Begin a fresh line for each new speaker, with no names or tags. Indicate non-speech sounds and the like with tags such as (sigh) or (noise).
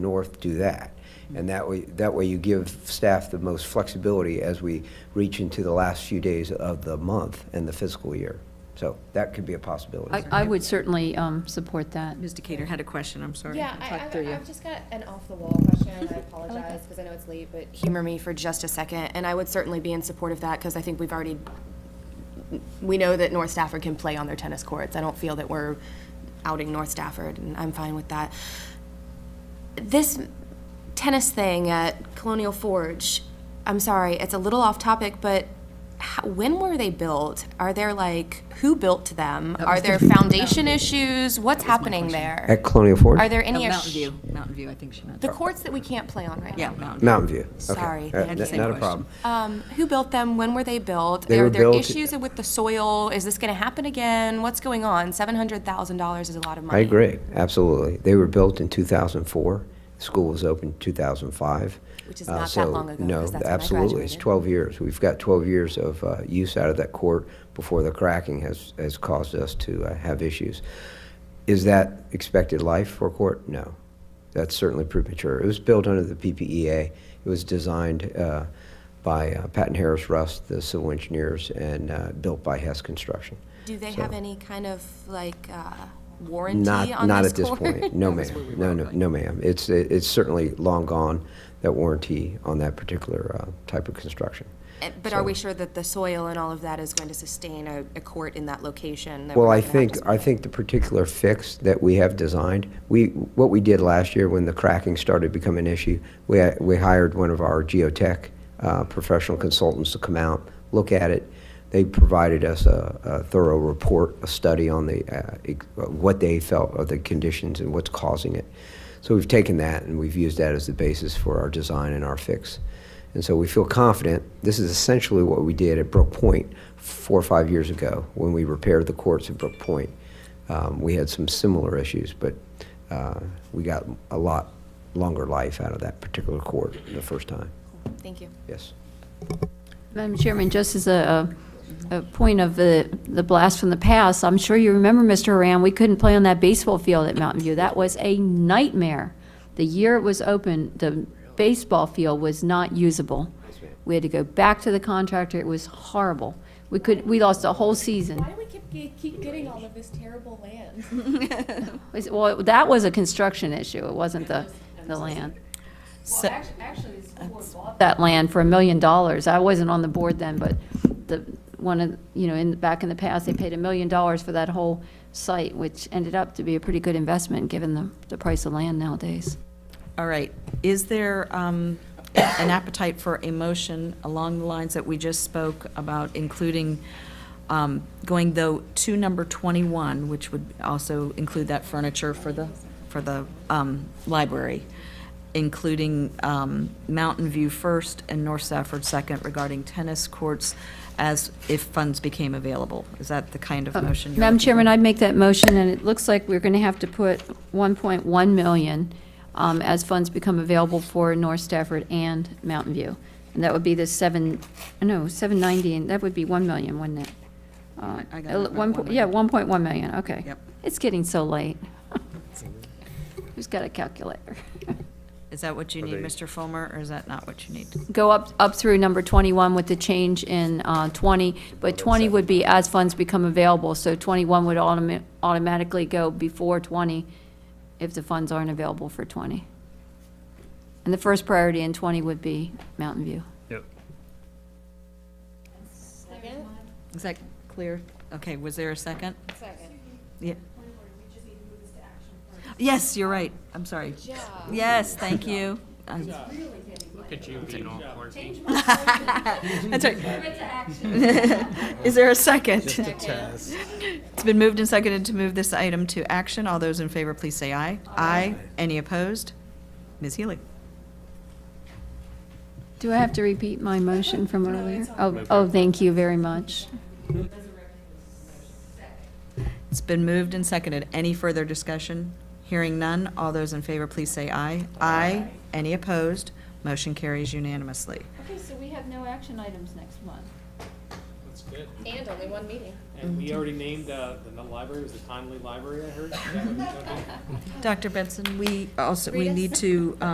north do that. And that way, that way you give staff the most flexibility as we reach into the last few days of the month and the fiscal year. So that could be a
I,
possibility.
I would certainly um, support that.
Ms. Decatur had a question, I'm sorry.
Yeah,
I
I,
talked through
I-
you.
I've just got an off-the-wall question, (laughs) I apologize, because I know it's late, but humor me for just a second, and I would certainly be in support of that, because I think we've already, we know that North Stafford can play on their tennis courts, I don't feel that we're outing North Stafford, and I'm fine with that. This tennis thing at Colonial Forge, I'm sorry, it's a little off-topic, but how, when were they built? Are there like, who built them? Are there foundation issues? What's happening there?
At Colonial Forge?
Are there
Oh,
any?
Mountain
ass-
View, Mountain View, I think she meant.
The courts that we can't play on right
Yeah,
now.
Mountain. View.
Mountain View. Okay.
Sorry,
All right,
I
had the
n-
same
Not a
question.
problem.
Um, who built them? When were they built?
They
Are
were
there
built-
issues with the soil? Is this going to happen again? What's going on? Seven hundred thousand dollars is a lot of money.
I agree, absolutely. They were built in 2004. School was opened 2005.
Which is
Uh,
not that
so,
long ago,
No,
'cause that's when I
absolutely. It's
graduated.
12 years. We've got 12 years of uh, use out of that court before the cracking has, has caused us to uh, have issues. Is that expected life for a court? No. That's certainly premature. It was built under the PPEA. It was designed uh, by uh, Patton Harris Rust, the civil engineers, and uh, built by Hess Construction.
Do they
So-
have any kind of like uh, warranty
not,
on
not
this
at this
court?
point.
(laughs)
No,
(laughs) That's where we
ma'am.
were
No, no,
going.
no, ma'am. It's, it's certainly long gone, that warranty on that particular uh, type of construction.
Eh, But are we
So-
sure that the soil and all of that is going to sustain a, a court in that location? that we're
Well, I
not gonna have
think,
to-
I think the particular fix that we have designed, we, what we did last year when the cracking started to become an issue, we, hi- we hired one of our geotech uh, professional consultants to come out, look at it. They provided us a, a thorough report, a study on the, uh, ex- what they felt are the conditions and what's causing it. So we've taken that and we've used that as the basis for our design and our fix. And so we feel confident. This is essentially what we did at Brook Point four or five years ago when we repaired the courts at Brook Point. Um, we had some similar issues, but uh, we got a lot longer life out of that particular court the first time.
Thank you.
Yes.
Madam Chairman, just as a, a a point of the, the blast from the past, I'm sure you remember, Mr. Haran, we couldn't play on that baseball field at Mountain View. That was a nightmare. The year it was open, the baseball field was not usable. We had to go back to the contractor. It was horrible. We could, we lost a whole season.
Why do we keep, ge- keep getting all of this terrible land?
Was- Well, that was a construction issue. It wasn't the, the land.
So-
that land for a million dollars. I wasn't on the board then, but the, one of, you know, in, back in the past, they paid a million dollars for that whole site, which ended up to be a pretty good investment, given the, the price of land nowadays.
All right, is there um, an appetite for a motion along the lines that we just spoke about, including um, going though to number 21, which would also include that furniture for the, for the um, library, including um, Mountain View first and North Stafford second regarding tennis courts as if funds became available? Is that the kind of motion? you're
Uh, Madam
looking for?
Chairman, I'd make that motion, and it looks like we're going to have to put 1.1 million um, as funds become available for North Stafford and Mountain View. And that would be the seven, no, 790, and that would be 1 million, wouldn't it? Uh,
I got it, about
one po-
1
Yeah,
million.
1.1 million, okay.
Yep.
It's getting so late. (laughs) Who's got a calculator? (laughs)
Is that what you need, Mr. Fulmer, or is that not what you need?
Go up, up through number 21 with the change in uh, 20, but 20 would be as funds become available, so 21 would automa- automatically go before 20 if the funds aren't available for 20. And the first priority in 20 would be Mountain View.
Yep.
Is that clear? Okay, was there a second? Second. Yeah. Yes, you're right. I'm sorry. Yes, thank you. I'm- (laughs) That's right. (laughs) Is there a second? It's been moved and seconded to move this item to action. All those in favor, please say aye. Aye. Any opposed? Ms. Healy?
Do I have to repeat my motion from earlier? Oh, oh, thank you very much.
It's been moved and seconded. Any further discussion? Hearing none, all those in favor, please say aye. Aye. Any opposed? Motion carries unanimously.
Okay, so we have no action items next month.
That's good.
And only one meeting.
And we already named, uh, the the library, was the Timely Library, I heard? Is that what we- okay.
Dr. Benson, we also, we
Rita?
need to um,